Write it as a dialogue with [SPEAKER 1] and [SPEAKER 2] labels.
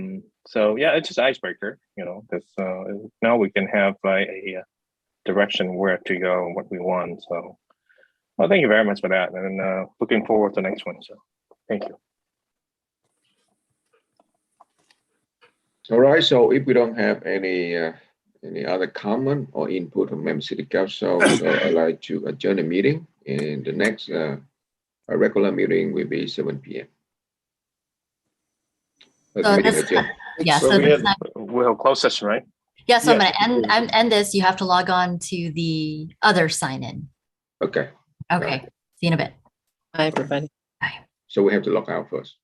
[SPEAKER 1] so yeah, it's just icebreaker. You know, this uh, now we can have like a uh, direction where to go and what we want. So, well, thank you very much for that, and uh, looking forward to the next one. So, thank you.
[SPEAKER 2] All right, so if we don't have any, uh, any other comment or input from member city council, so I'd like to adjourn the meeting. And the next, uh, our regular meeting will be seven P M.
[SPEAKER 3] So this- Yeah, so,
[SPEAKER 1] Well, we have
[SPEAKER 3] that's not-
[SPEAKER 1] we have closed session, right?
[SPEAKER 3] yeah, so I'm
[SPEAKER 2] yeah,
[SPEAKER 3] gonna end, I'm end this. You have to log on to the other sign in.
[SPEAKER 2] Okay,
[SPEAKER 3] Okay, see you in a bit.
[SPEAKER 4] Bye, everybody.
[SPEAKER 2] so we have to lock out first.